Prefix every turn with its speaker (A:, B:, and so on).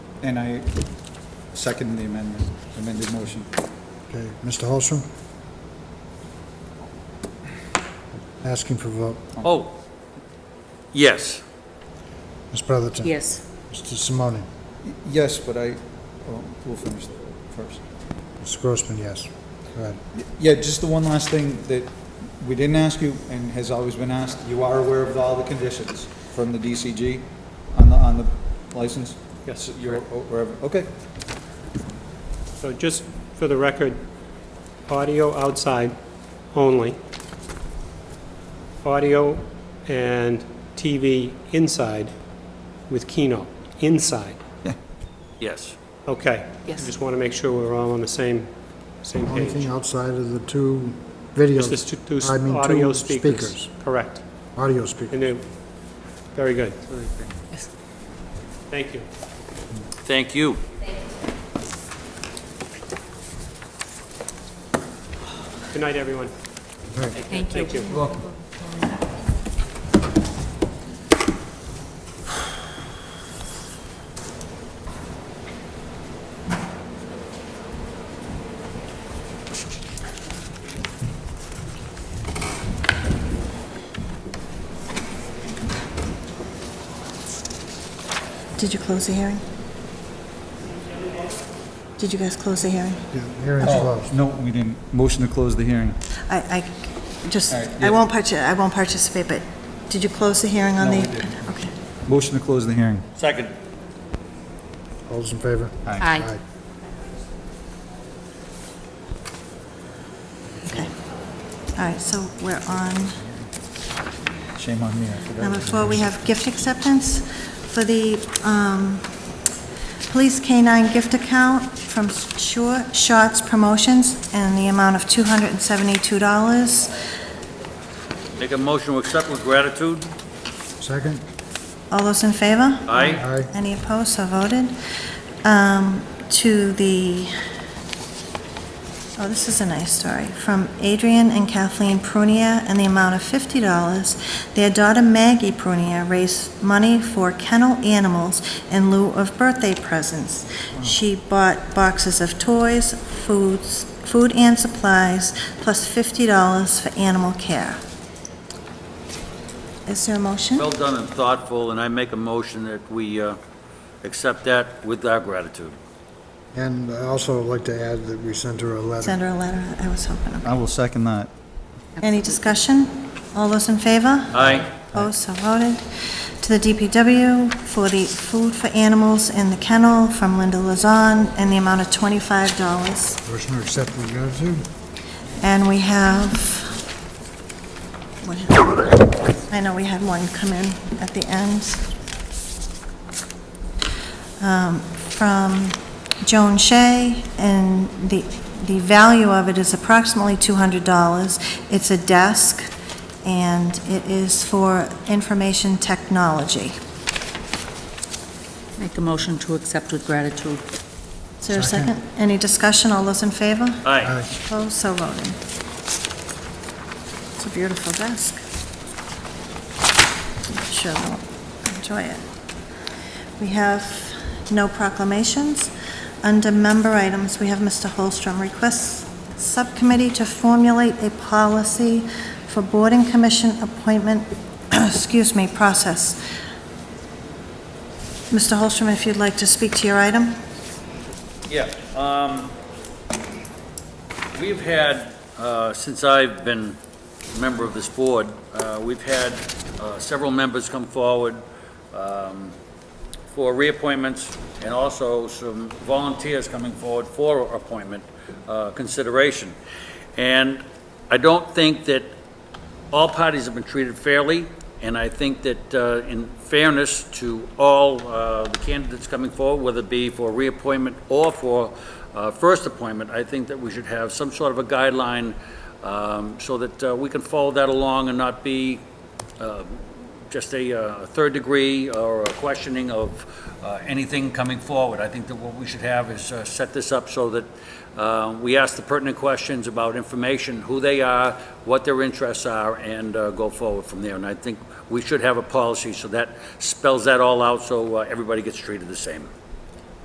A: And I second the amendment, amended motion.
B: Okay, Mr. Holstrom? Asking for vote.
C: Oh, yes.
B: Ms. Brotherton?
D: Yes.
B: Mr. Simone?
A: Yes, but I, oh, we'll finish that first.
B: Mr. Grossman, yes. Go ahead.
A: Yeah, just the one last thing that we didn't ask you and has always been asked, you are aware of all the conditions from the DCG on the, on the license?
E: Yes.
A: You're, wherever, okay.
E: So just for the record, audio outside only. Audio and TV inside with Keno, inside.
C: Yes.
E: Okay.
D: Yes.
E: Just want to make sure we're all on the same, same
B: Only
E: page.
B: thing outside of the two video,
E: Just this two- two
B: I mean,
E: audio
B: two speakers.
E: Correct.
B: audio speakers.
E: And then, very good. Thank you.
C: Thank you.
E: Good night, everyone.
D: Thank you.
E: Thank you.
F: Did you close the hearing? Did you guys close the hearing?
B: Yeah, Hearing's
A: Oh,
B: closed.
A: no, we didn't. Motion to close the hearing.
F: I, I just,
A: All right, yeah.
F: I won't parti, I won't participate, but did you close the hearing on
A: No,
F: the?
A: we didn't.
F: Okay.
A: Motion to close the hearing.
C: Second.
B: All those in favor?
D: Aye.
F: Okay. All right, so we're on,
A: Shame on me, I forgot.
F: number four, we have gift acceptance for the um, Police K-9 gift account from Sure Shots Promotions and the amount of $272.
C: Make a motion to accept with gratitude.
B: Second?
F: All those in favor?
C: Aye.
B: Aye.
F: Any opposed, so voted. Um, To the, oh, this is a nice story, from Adrian and Kathleen Prunia in the amount of $50. Their daughter Maggie Prunia raised money for kennel animals in lieu of birthday presents. She bought boxes of toys, foods, food and supplies, plus $50 for animal care. Is there a motion?
C: Well done and thoughtful, and I make a motion that we uh, accept that with our gratitude.
B: And I also like to add that we sent her a letter.
F: Send her a letter, I was hoping.
A: I will second that.
F: Any discussion? All those in favor?
C: Aye.
F: Opposed, so voted. To the DPW for the food for animals in the kennel from Linda Lazan in the amount of $25.
B: Motion to accept with gratitude?
F: And we have, what is- I know we had one come in at the end. Um, From Joan Shea, and the, the value of it is approximately $200. It's a desk, and it is for information technology.
D: Make a motion to accept with gratitude.
F: Is there a
B: Second.
F: second? Any discussion? All those in favor?
C: Aye.
F: Opposed, Oh, so voted. It's a beautiful desk. Sure they'll enjoy it. We have no proclamations. Under member items, we have Mr. Holstrom requests subcommittee to formulate a policy for board and commission appointment, excuse me, process. Mr. Holstrom, if you'd like to speak to your item?
C: Yeah, um, we've had, uh, since I've been a member of this board, uh, we've had, uh, several members come forward, um, for reappointments and also some volunteers coming forward for appointment, uh, consideration. And I don't think that all parties have been treated fairly, and I think that uh, in fairness to all uh, the candidates coming forward, whether it be for reappointment or for uh, first appointment, I think that we should have some sort of a guideline um, so that uh, we can follow that along and not be um, just a uh, third degree or a questioning of uh, anything coming forward. I think that what we should have is uh, set this up so that uh, we ask the pertinent questions about information, who they are, what their interests are, and uh, go forward from there. And I think we should have a policy so that spells that all out so uh, everybody gets treated the same.